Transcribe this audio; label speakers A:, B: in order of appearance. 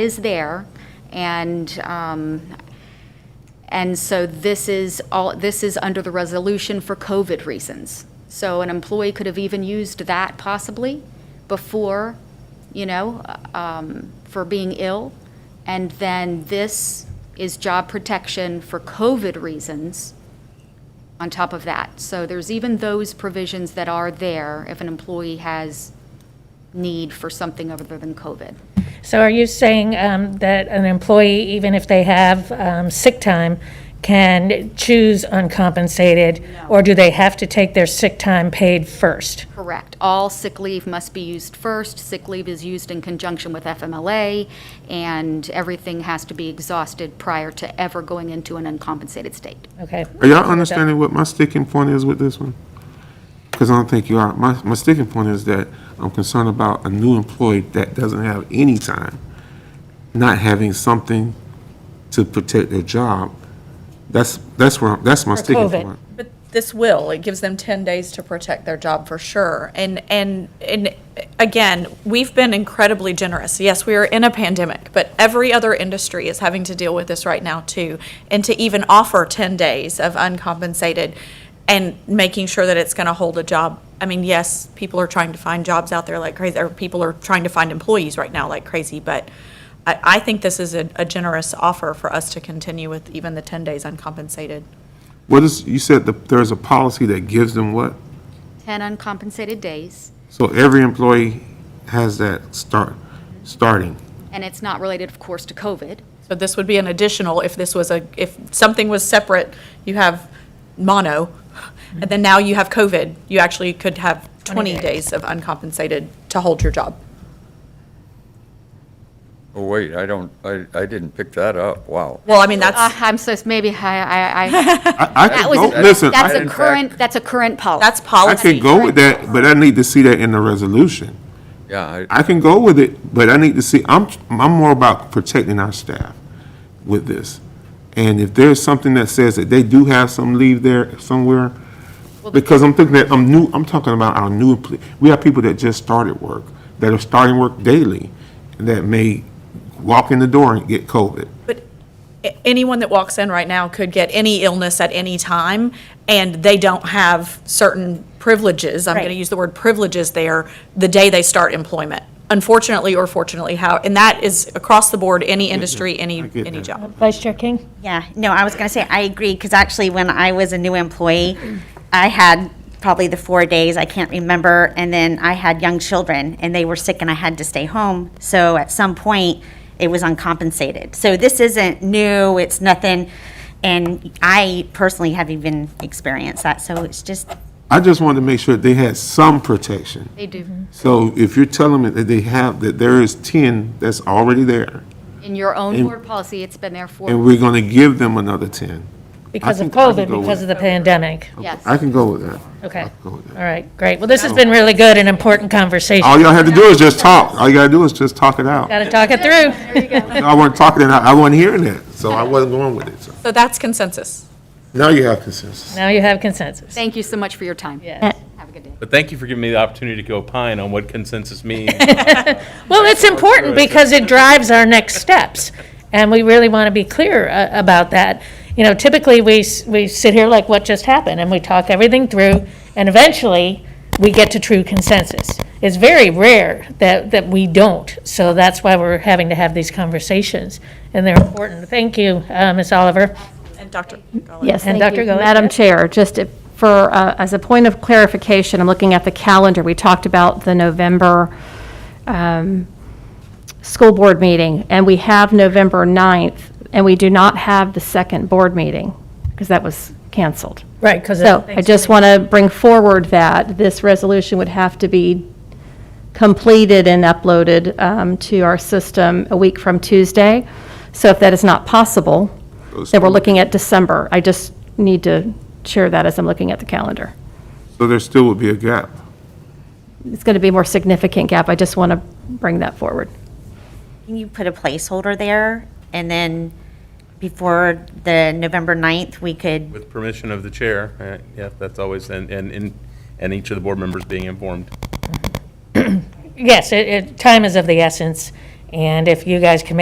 A: is there, and, um, and so this is all, this is under the resolution for COVID reasons. So an employee could have even used that possibly before, you know, um, for being ill. And then this is job protection for COVID reasons on top of that. So there's even those provisions that are there if an employee has need for something other than COVID.
B: So are you saying um, that an employee, even if they have um, sick time, can choose uncompensated? Or do they have to take their sick time paid first?
A: Correct. All sick leave must be used first. Sick leave is used in conjunction with FMLA, and everything has to be exhausted prior to ever going into an uncompensated state.
B: Okay,
C: Are y'all understanding what my sticking point is with this one? Because I don't think you are. My, my sticking point is that I'm concerned about a new employee that doesn't have any time, not having something to protect their job. That's, that's where, I'm- that's my sticking
B: COVID.
C: point.
D: But this will, it gives them 10 days to protect their job for sure. And, and, and again, we've been incredibly generous. Yes, we are in a pandemic, but every other industry is having to deal with this right now too. And to even offer 10 days of uncompensated and making sure that it's going to hold a job. I mean, yes, people are trying to find jobs out there like crazy, or people are trying to find employees right now like crazy, but I, I think this is a a generous offer for us to continue with even the 10 days uncompensated.
C: What is, you said that there's a policy that gives them what?
A: 10 uncompensated days,
C: So every employee has that start, starting.
A: and it's not related, of course, to COVID.
D: So this would be an additional, if this was a, if something was separate, you have mono, and then now you have COVID, you actually could have 20 days of uncompensated to hold your job.
E: Oh, wait, I don't, I, I didn't pick that up, wow.
D: Well, I mean,
A: Uh,
D: that's,
A: I'm so, maybe I, I, I,
C: I, I
A: that
C: can
A: was,
C: go, listen,
A: that's
C: I
A: a
E: in fact-
A: current, that's a current policy.
D: that's
C: I
D: policy.
C: can go with that, but I need to see that in the resolution.
E: Yeah, I,
C: I can go with it, but I need to see, I'm, I'm more about protecting our staff with this. And if there's something that says that they do have some leave there somewhere, because I'm thinking that, I'm new, I'm talking about our new, empl- we have people that just started work, that are starting work daily, that may walk in the door and get COVID.
D: But a- anyone that walks in right now could get any illness at any time, and they don't have certain privileges, I'm going to
B: Right.
D: use the word privileges there, the day they start employment, unfortunately or fortunately, how, and that is across the board, any industry, any,
C: Mm-hmm. I get
D: any
C: that.
D: job.
B: Vice Chair King?
F: Yeah, no, I was going to say, I agree, because actually, when I was a new employee, I had probably the four days, I can't remember, and then I had young children, and they were sick, and I had to stay home. So at some point, it was uncompensated. So this isn't new, it's nothing, and I personally have even experienced that, so it's just,
C: I just wanted to make sure they had some protection.
A: They do.
C: So if you're telling me that they have, that there is ten that's already there,
A: In your own board policy, it's been there
C: and
A: for,
C: we're gonna give them another ten,
B: Because of
C: think I can
B: COVID,
C: go
B: because
C: with-
B: of the pandemic.
A: yes.
C: I can go with that.
B: Okay,
C: go
B: all
C: with that.
B: right, great. Well, this has been really good and important conversation.
C: All y'all had to do is just talk. All you gotta do is just talk it out.
B: Got to talk it through.
C: I wasn't talking it out. I wasn't hearing it, so I wasn't going with it. So
D: So that's consensus.
C: Now you have consensus.
B: Now you have consensus.
A: Thank you so much for your time.
B: Yes.
A: Have a good day.
G: But thank you for giving me the opportunity to go opine on what consensus means.
B: Well, it's important because it drives our next steps, and we really want to be clear uh, about that. You know, typically, we, s- we sit here like what just happened, and we talk everything through, and eventually, we get to true consensus. It's very rare that, that we don't, so that's why we're having to have these conversations, and they're important. Thank you, uh, Ms. Oliver.
D: And Dr. Garland.
H: Yes,
B: And
H: thank
B: Dr.
H: you.
B: Gully?
H: Madam Chair, just if- for, uh, as a point of clarification, I'm looking at the calendar. We talked about the November um, school board meeting, and we have November 9th, and we do not have the second board meeting, because that was canceled.
B: Right, because.
H: So I just want to bring forward that this resolution would have to be completed and uploaded um, to our system a week from Tuesday. So if that is not possible, then we're looking at December. I just need to share that as I'm looking at the calendar.
C: So there still would be a gap.
H: It's going to be a more significant gap. I just want to bring that forward.
F: can you put a placeholder there? And then before the November 9th, we could
G: With permission of the chair, right, yeah, that's always, and, and- and, and each of the board members being informed.
B: Yes, it, it, time is of the essence, and if you guys can make